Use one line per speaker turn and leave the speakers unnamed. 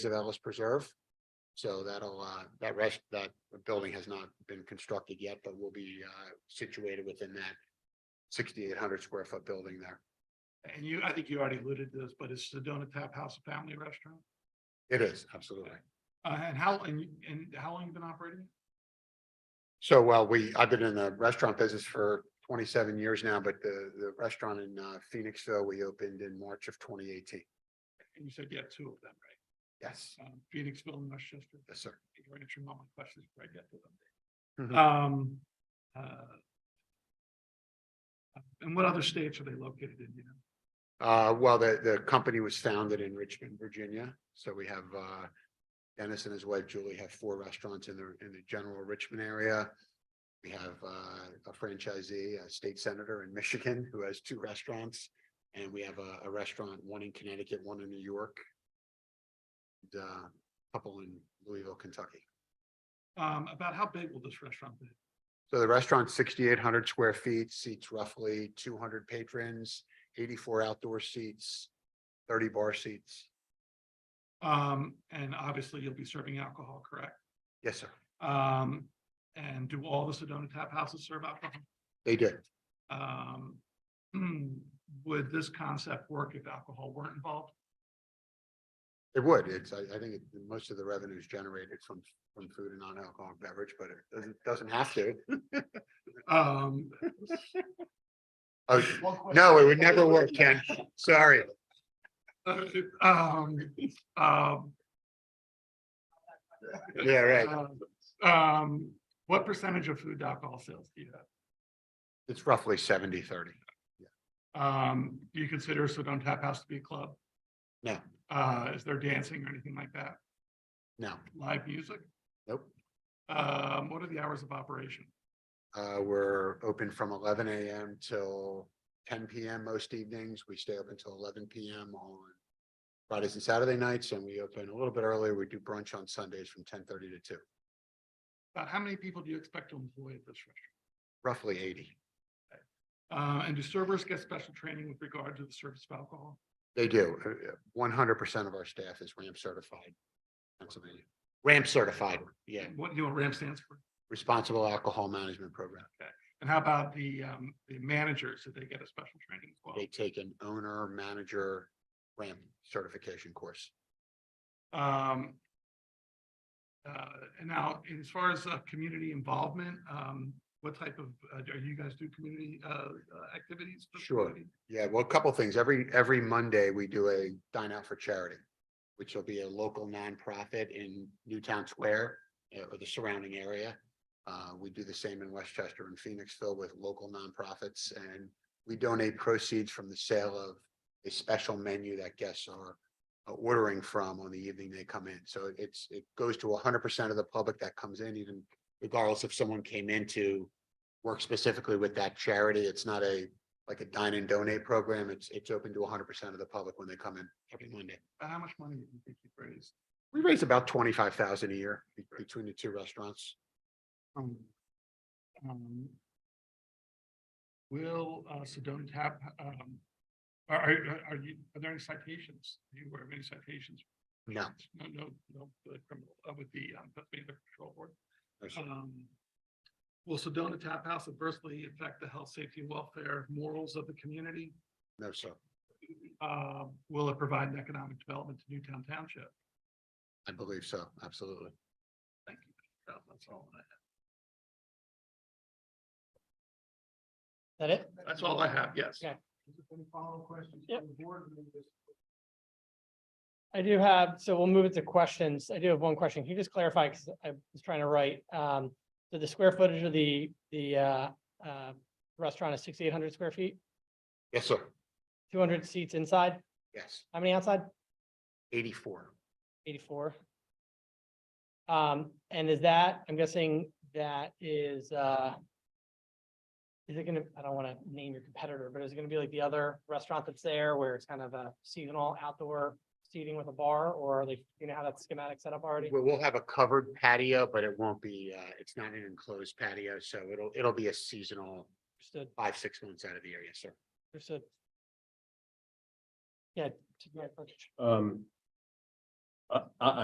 of Ellis Preserve. So that'll, uh, that rest, that building has not been constructed yet, but will be, uh, situated within that sixty-eight hundred square foot building there.
And you, I think you already alluded to this, but is Sedona Tap House a family restaurant?
It is, absolutely.
Uh, and how, and, you- and how long you been operating?
So, well, we, I've been in the restaurant business for twenty-seven years now, but the, the restaurant in, uh, Phoenixville, we opened in March of twenty eighteen.
And you said you have two of them,
Yes,
right? Um, Phoenixville and Westchester.
yes, sir.
You're answering all my questions before I get to them.
Mhm.
Um, uh. And what other states are they located in, you know?
Uh, well, the, the company was founded in Richmond, Virginia, so we have, uh. Dennis and his wife Julie have four restaurants in the, in the general Richmond area. We have, uh, a franchisee, a state senator in Michigan who has two restaurants. And we have a, a restaurant, one in Connecticut, one in New York. And, uh, a couple in Louisville, Kentucky.
Um, about how big will this restaurant be?
So the restaurant's sixty-eight hundred square feet, seats roughly two hundred patrons, eighty-four outdoor seats, thirty bar seats.
Um, and obviously you'll be serving alcohol, correct?
Yes, sir.
Um, and do all the Sedona Tap Houses serve alcohol?
They did.
um, would this concept work if alcohol weren't involved?
It would. It's, I, I think it- most of the revenue is generated from, from food and non-alcoholic beverage, but it doesn't, doesn't have to.
Um.
Oh, no, it would never work, Ken. Sorry.
Um, um,
Yeah, right.
um, what percentage of food to alcohol sales do you
It's roughly 70-30.
have? Um, do you consider Sedona Tap House to be a club?
No.
Uh, is there dancing or anything like that?
No,
Live music?
nope.
Um, what are the hours of operation?
Uh, we're open from eleven AM till ten PM most evenings. We stay open till eleven PM on Fridays and Saturday nights, and we open a little bit earlier. We do brunch on Sundays from ten thirty to two,
About how many people do you expect to employ at this restaurant?
roughly eighty.
Uh, and do servers get special training with regard to the service of alcohol?
They do. Uh, One hundred percent of our staff is ramp certified. Pennsylvania, ramp certified, yeah,
What do you want RAM stands for?
responsible alcohol management program.
And how about the, um, the managers? Did they get a special training as well?
They take an owner manager ramp certification course.
Um, uh, and now, as far as, uh, community involvement, um, what type of, uh, are you guys do community, uh, uh, activities? for the
Sure.
community?
Yeah, well, a couple things. Every, every Monday, we do a dine out for charity, which will be a local nonprofit in Newtown Square uh, or the surrounding area. Uh, we do the same in Westchester and Phoenixville with local nonprofits and we donate proceeds from the sale of a special menu that guests are uh, ordering from on the evening they come in. So it's, it goes to hundred percent of the public that comes in, even regardless if someone came in to work specifically with that charity. It's not a like a dine and donate program. It's, it's open to hundred percent of the public when they come in every Monday.
Uh, How much money do you think you've raised?
We raise about twenty-five thousand a year be- between the two restaurants.
Um, um, Will, uh, Sedona Tap, um, are, are, are you, are there any citations? Are you aware of any citations?
No.
No, no, no, the criminal, uh, with the, um, Pennsylvania Control Board.
no, sir.
Um, will Sedona Tap House adversely affect the health, safety, welfare, morals of the community?
No, sir.
Uh, will it provide an economic development to Newtown Township?
I believe so. Absolutely.
Thank you. That- That's all I have.
That it?
That's all I have, yes.
Okay.
Any follow-up questions?
Yep. I do have, so we'll move it to questions. I do have one question. Can you just clarify, because I was trying to write, um, so the square footage of the, the, uh, uh, restaurant is sixty-eight hundred square feet,
Yes, sir.
two hundred seats inside,
Yes.
how many outside?
Eighty-four.
Eighty-four. Um, and is that, I'm guessing that is, uh, is it gonna, I don't want to name your competitor, but is it gonna be like the other restaurant that's there where it's kind of a seasonal outdoor seating with a bar, or are they, you know how that schematic set up already?
We'll, we'll have a covered patio, but it won't be, uh, it's not an enclosed patio, so it'll, it'll be a seasonal
Understood,
five, six months out of the year. Yes, sir.
understood. Yeah. to my question.
Um, I, I,